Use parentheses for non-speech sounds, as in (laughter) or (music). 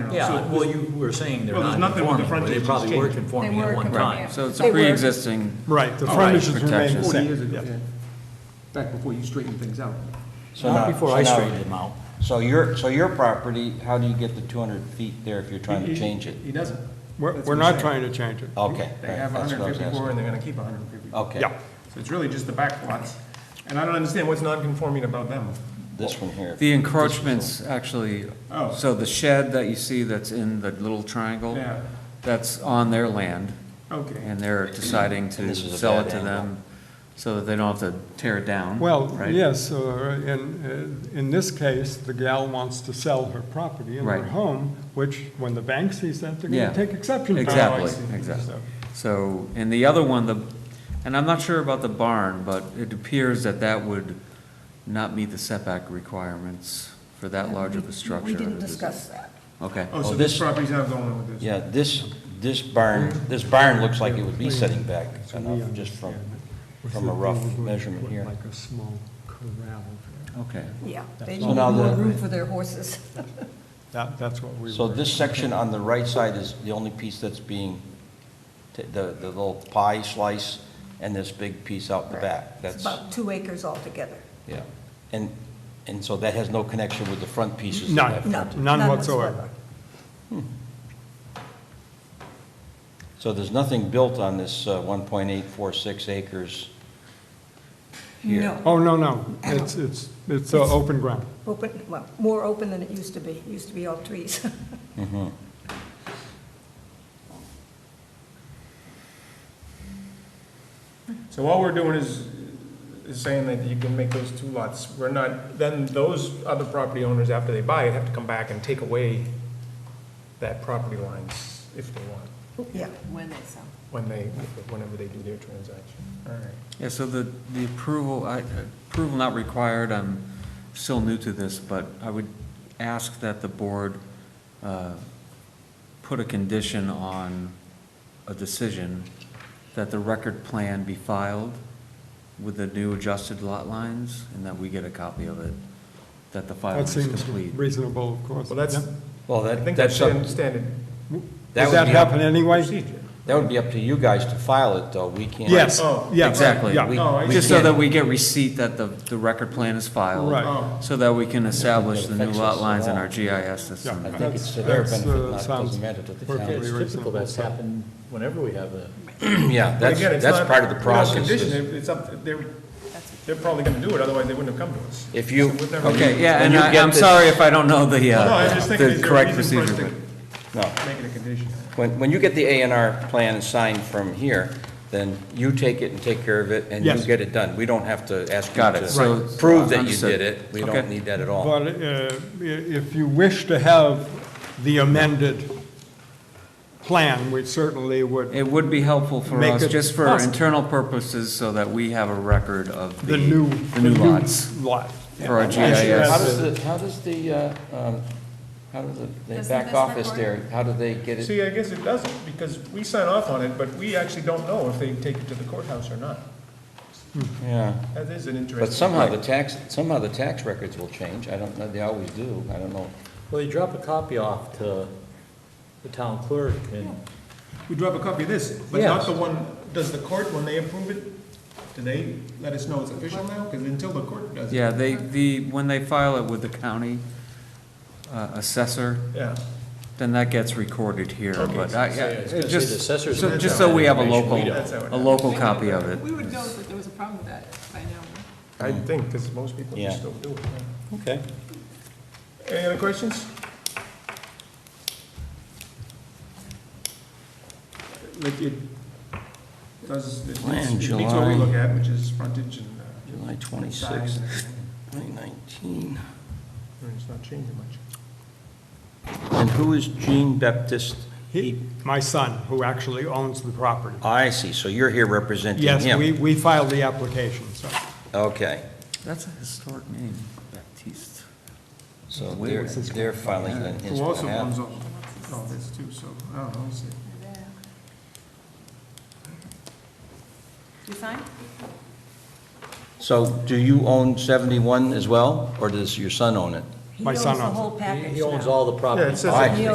know. Yeah, So- well, you were saying they're Well, there's not nothing with the conforming, well, they frontage probably that's were changed. conforming They at were one conforming. time. So it's They a were- pre-existing, Right, the Right, frontages remain the protections. Forty years same. ago, Yeah. back before you straightened things out. So Not now- before so I now- straightened them out. So your, so your property, how do you get the 200 feet there if you're trying to change it? He doesn't. We're, That's we're what I'm saying. not Oh, trying to change it. Okay. They right, have that's what I was 154 asking. and they're gonna keep 154. Okay. Yeah. So So it's really just the back lots. And I don't understand what's non-conforming about them. This one here. the encroachments actually, Oh. so the shed that you see that's in the little triangle, Yeah. that's on their land, Okay. and they're deciding And to this is a sell bad it to angle. them so that they don't have to tear it down. Well, right? yes, uh, in, uh, in this case, the gal wants to sell her property and her Right. home, which when the bank sees that, they're Yeah. gonna take exception to. Exactly, So- exactly. So, and the other one, the, and I'm not sure about the barn, but it appears that that would not meet the setback requirements for that large of a structure. We didn't discuss that. Okay. Oh, so Oh, this this- property's not going with this. Yeah, this, this barn, this barn looks like it would be setting back enough, just from, from a rough measurement here. Like a small corral. Okay. Yeah, they So need now more the- room for their horses. That, that's what we were. So this section on the right side is the only piece that's being, t- the, the little pie slice and this big piece out the back. It's That's, about two acres altogether. yeah. And, and so that has no connection with the front pieces? of None. that No, front- None whatsoever. So there's nothing built on this uh, 1.846 acres here? No. Oh, no, no, it's, it's, it's uh, open ground. Open, well, more open than it used to be. It used to be all trees. (laughs) So all we're doing is, is saying that you can make those two lots. We're not, then those other property owners, after they buy it, have to come back and take away that property lines if they want, Yeah, when they sell. when they, whenever they do their transaction. All right. Yeah, so the, the approval, I, approval not required, I'm still new to this, but I would ask that the board, uh, put a condition on a decision that the record plan be filed with the new adjusted lot lines, and that we get a copy of it, that the filing That is seems complete. reasonable, of course. Well, that's, Yep. Well, I that, think that's that's up, standard that Does would that be, up- happen anyway? procedure. that would be up to you guys to file it, though. We can't. Yes, Oh, yeah. Exactly. yeah. We- Oh, I we Just so can't- that we get receipt that the, the record plan is filed. Right. Oh. So that we can establish It the new affects lot us lines in all. our GIS Yeah. I system. think it's to their That's- that's, benefit, uh, not, it sounds doesn't matter to the perfectly town. reasonable. It's typical, that's happened whenever we have a, Yeah, But that's, again, it's that's not- part of the we don't process. condition is- it. It's up, they're, they're probably gonna do it, otherwise they wouldn't have come to us. If you, We've never- Okay, yeah, When and you I, get I'm this- sorry if I don't know the, No, I uh, just think the there's a correct reason for us procedure. to no, make it a condition. when, when you get the A and R plan signed from here, then you take it and take care of it, and you Yes. get it done. We don't have to ask you Got it, so- to prove that you Understood. did it. We Okay. don't need that at all. But uh, i- if you wish to have the amended plan, we certainly would, It would be helpful for Make us, it just for possible. internal purposes, so that we have a record of the new, The new lots lot. for our How GIS. does the, how does the, uh, um, how does the, the Does the back business office report- there, how do they get it? See, I guess it doesn't, because we sign off on it, but we actually don't know if they take it to the courthouse or not. Yeah, That is an interesting. but somehow the tax, somehow the tax records will change. I don't know, they always do. I don't know. well, you drop a copy off to the town clerk and We drop a copy of this, but not Yes. the one, does the court, when they approve it, do they let us know it's official now? Because until the court does it. Yeah, they, the, when they file it with the county uh, assessor, Yeah. then that gets recorded here, but I, so yeah, it's gonna it say the just, assessor's so- gonna just have so we have a information local, we don't. That's how it a is. local copy of it. We would know that there was a problem with that by now. I think, because most people Hmm. Yeah. just don't do it. yeah. Okay. Any other questions? Like it does, it Plan, meets it meets what July. we look at, which is frontage and uh, July size twenty-sixth, and everything. twenty nineteen. I mean, It's not changing much. And who is Jean Baptiste? He- My son, who actually owns the property. oh, I see, so you're here representing him? Yes, we, we filed the application, so. Okay, That's a historic name, Baptiste. so Where they're, was this they're filing on his Who also owns behalf. all, all this too, so, I don't know, let's see. Do you sign? So do you own seventy-one as well, or does your son own it? He My owns the son owns it. whole package he owns now. all the property. Oh, Yeah, it says All right. He